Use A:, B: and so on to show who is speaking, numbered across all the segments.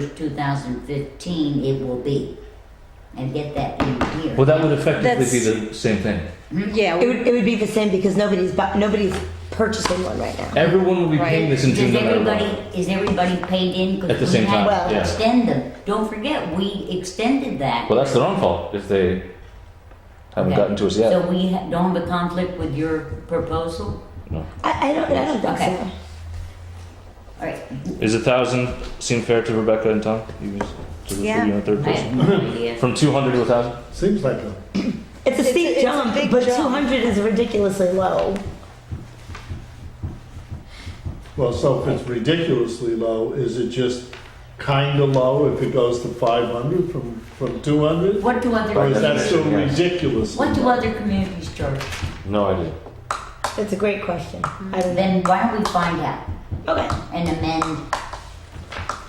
A: first, two thousand fifteen, it will be. And get that in here.
B: Well, that would effectively be
C: That's-
B: the same thing.
C: Yeah,
D: It
C: we-
D: would, it would be the same because nobody's bu- nobody's purchasing one right now.
B: Everyone will be paying
C: Right.
B: this in June
A: Does
B: no matter what.
A: everybody, is everybody paid in? 'Cause
B: At the
A: we
B: same
A: had
B: time,
A: to
B: yeah.
A: Extend them, don't forget, we extended that.
B: Well, that's their own fault if they haven't
A: Okay.
B: gotten to us yet.
A: So we ha- don't have a conflict with your proposal?
B: no.
D: I, I don't, I don't think
A: Okay.
D: so.
A: All right,
B: Is a thousand seem fair to Rebecca and Tom? You was to the
C: Yeah.
B: you in third
A: I
B: person.
A: have no idea.
B: From two hundred to a thousand.
E: Seems like a,
D: It's a
C: It's a-
D: steep
C: it's a
D: jump,
C: big
D: but
C: jump.
D: 200 is ridiculously low.
E: well, so if it's ridiculously low, is it just kinda low if it goes to five hundred from, from two hundred?
A: What do
E: Or is
A: other,
E: that still
B: Yeah.
E: ridiculous?
A: what do other communities charge?
B: No idea.
D: That's a great question. I don't know.
A: Then why don't we find out
D: Okay.
A: and amend?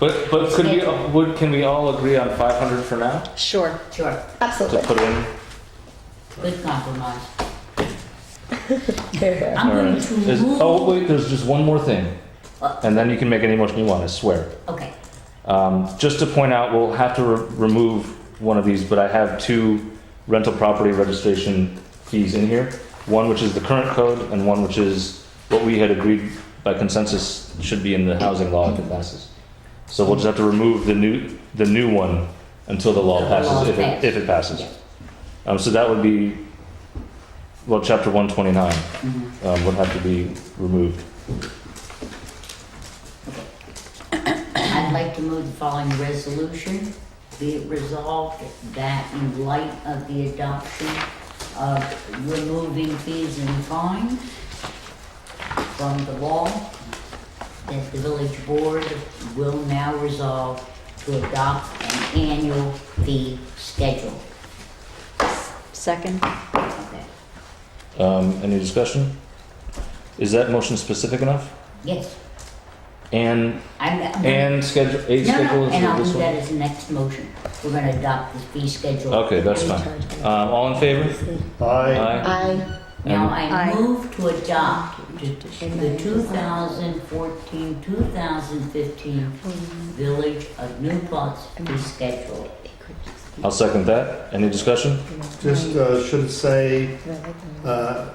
B: But but could we would can we all agree on five hundred for now
C: sure.
A: Sure,
B: to
D: Absolutely.
B: put in?
A: good compromise.
D: Fair, fair.
A: I'm going
B: Alright.
A: to
B: Is-
A: move.
B: oh wait, there's just one more thing,
A: What?
B: and then you can make any motion you want. I swear.
A: Okay,
B: Um, just to point out, we'll have to re- remove one of these, but I have two rental property registration fees in here. One which is the current code, and one which is what we had agreed by consensus should be in the housing law if it passes. So we'll just have to remove the new, the new one until the law
A: Until the law
B: passes, if it,
A: passes.
B: if it passes.
A: Yeah.
B: Um, so that would be, well, chapter one twenty-nine,
A: mhm.
B: um, would have to be removed.
A: I'd like to move the following resolution. Be it resolved that in light of the adoption of removing fees and fines from the law, that the village board will now resolve to adopt an annual fee schedule.
C: Second.
A: Okay.
B: Um, any discussion? Is that motion specific enough?
A: Yes,
B: And
A: I'm, I'm.
B: Mm-hmm. And schedule, a
A: No,
B: schedule
A: no,
B: is
A: and I'll
B: this
A: do that
B: one?
A: as the next motion. We're gonna adopt the fee schedule.
B: Okay, that's fine. Um, all in favor?
E: I,
B: Aye.
D: I
A: Now
B: And-
A: I
C: Aye.
A: move to adopt the- the 2014, 2015
C: Mm-hmm.
A: Village of New Paltz fee schedule.
B: I'll second that. Any discussion?
E: just, uh, should say, uh,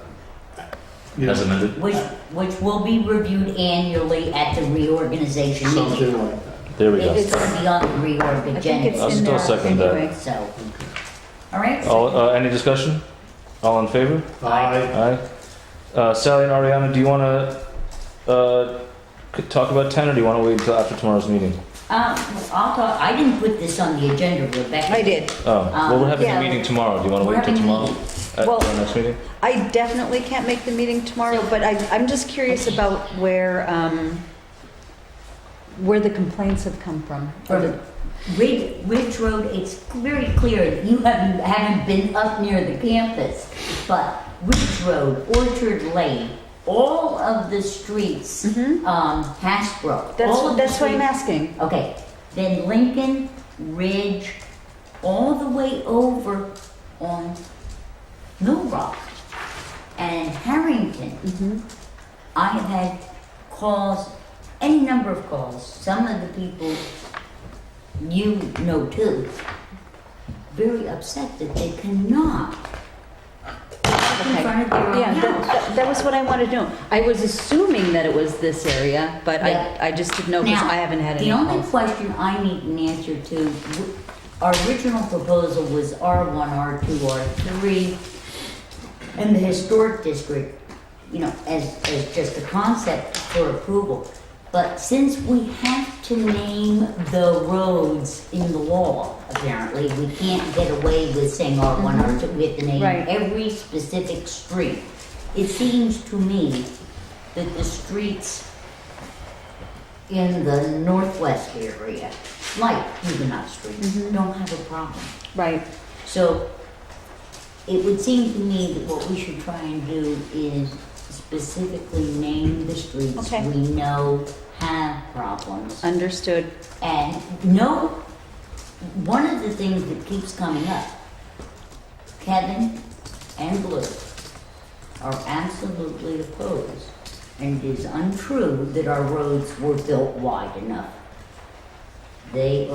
E: you know,
B: amended.
A: Which, which will be reviewed annually at the reorganization meeting.
E: something like that.
B: There we go.
A: It's gonna be on the reorg
C: I think it's
A: agenda,
B: I'll
C: in
B: still
C: there
B: second that.
C: anyway.
A: so. All right,
B: All, uh, any discussion? All in favor?
E: I,
B: Aye. Uh, Sally and Ariana, do you wanna, uh, c- talk about ten or do you wanna wait until after tomorrow's meeting?
A: uh, I'll talk, I didn't put this on the agenda, Rebecca.
C: I did.
B: Oh, well, we're having a
C: yeah.
B: meeting tomorrow. Do you wanna
A: Um, We're
B: wait till
A: having a
B: tomorrow?
A: meeting.
B: At
C: Well-
B: our next meeting?
C: I definitely can't make the meeting tomorrow, but I, I'm just curious about where, um, where the complaints have come from.
A: From Ridge, Ridge Road, it's very clear that you haven't, haven't been up near the campus, but Ridge Road, Orchard Lane, all of the streets,
C: Mhm.
A: um, Hasbro.
C: That's,
A: all of the
C: that's what I'm
A: streets-
C: asking.
A: Okay, then Lincoln, Ridge, all the way over on Mill Rock and Harrington. I have had calls, any number of calls, some of the people you know too, very upset that they cannot park in
C: Okay.
A: front of their own
C: Yeah, that,
A: house.
C: that- that was what I wanted to know. I was assuming that it was this area, but I,
A: Yeah.
C: I just didn't know because
A: Now,
C: I haven't had any
A: The only
C: calls.
A: question I need an answer to, w- our original proposal was R one, R two, R three, and the historic district, you know, as, as just a concept for approval. But since we have to name the roads in the law, apparently, we can't get away with saying R one, R two, we have to name
C: Right.
A: every specific street. It seems to me that the streets in the northwest area, like Huguenot Street, don't have a problem.
C: Right.
A: So it would seem to me that what we should try and do is specifically name the streets
C: Okay.
A: we know have problems.
C: Understood.
A: And no, one of the things that keeps coming up, Kevin and Blue are absolutely opposed. And it is untrue that our roads were built wide enough. They